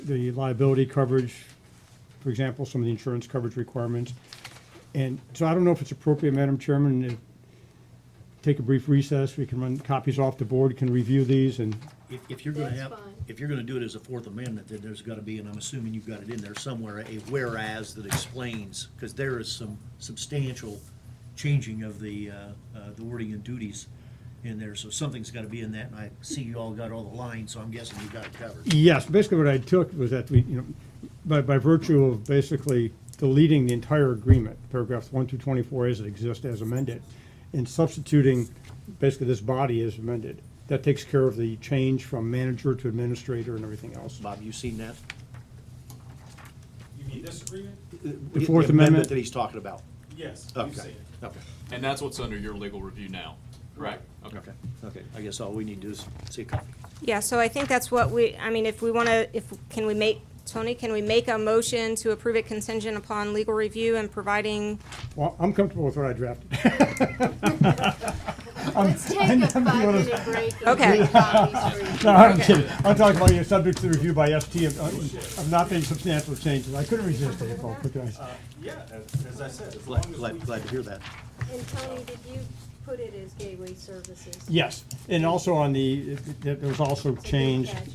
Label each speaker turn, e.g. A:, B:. A: the liability coverage, for example, some of the insurance coverage requirements. And so I don't know if it's appropriate, Madam Chairman, to take a brief recess, we can run copies off the board, can review these, and
B: If, if you're gonna
C: That's
B: have,
C: fine.
B: if you're gonna do it as a Fourth Amendment, then there's gotta be, and I'm assuming you've got it in there somewhere, a whereas that explains, because there is some substantial changing of the, uh, uh, the wording and duties in there, so something's gotta be in that, and I see you all got all the lines, so I'm guessing you got it covered.
A: yes, basically what I took was that we, you know, by, by virtue of basically deleting the entire agreement, paragraphs one through twenty-four as it exists as amended, and substituting basically this body as amended. That takes care of the change from manager to administrator and everything else.
B: Bob, you seen that?
D: You mean this agreement?
A: The Fourth Amendment?
B: That he's talking about.
D: Yes, you see
B: Okay,
D: it.
B: okay,
E: And that's what's under your legal review now, correct?
B: okay, okay. I guess all we need to do is see a copy.
C: Yeah, so I think that's what we, I mean, if we want to, if, can we make, Tony, can we make a motion to approve it contingent upon legal review and providing?
A: Well, I'm comfortable with what I drafted.
F: Let's take a five-minute break. and
C: Okay.
F: get copies for each
A: No, I'm
C: Okay.
A: kidding. I'm talking about your subject to review by ST of, uh, of not being substantial changes. I couldn't resist it, Paul, could I?
D: Yeah, as, as I said, as long
B: Glad,
D: as we.
B: glad, glad to hear that.
F: And Tony, did you put it as gateway services?
A: Yes, and also on the, there was also
F: It's a good
A: change
F: catch.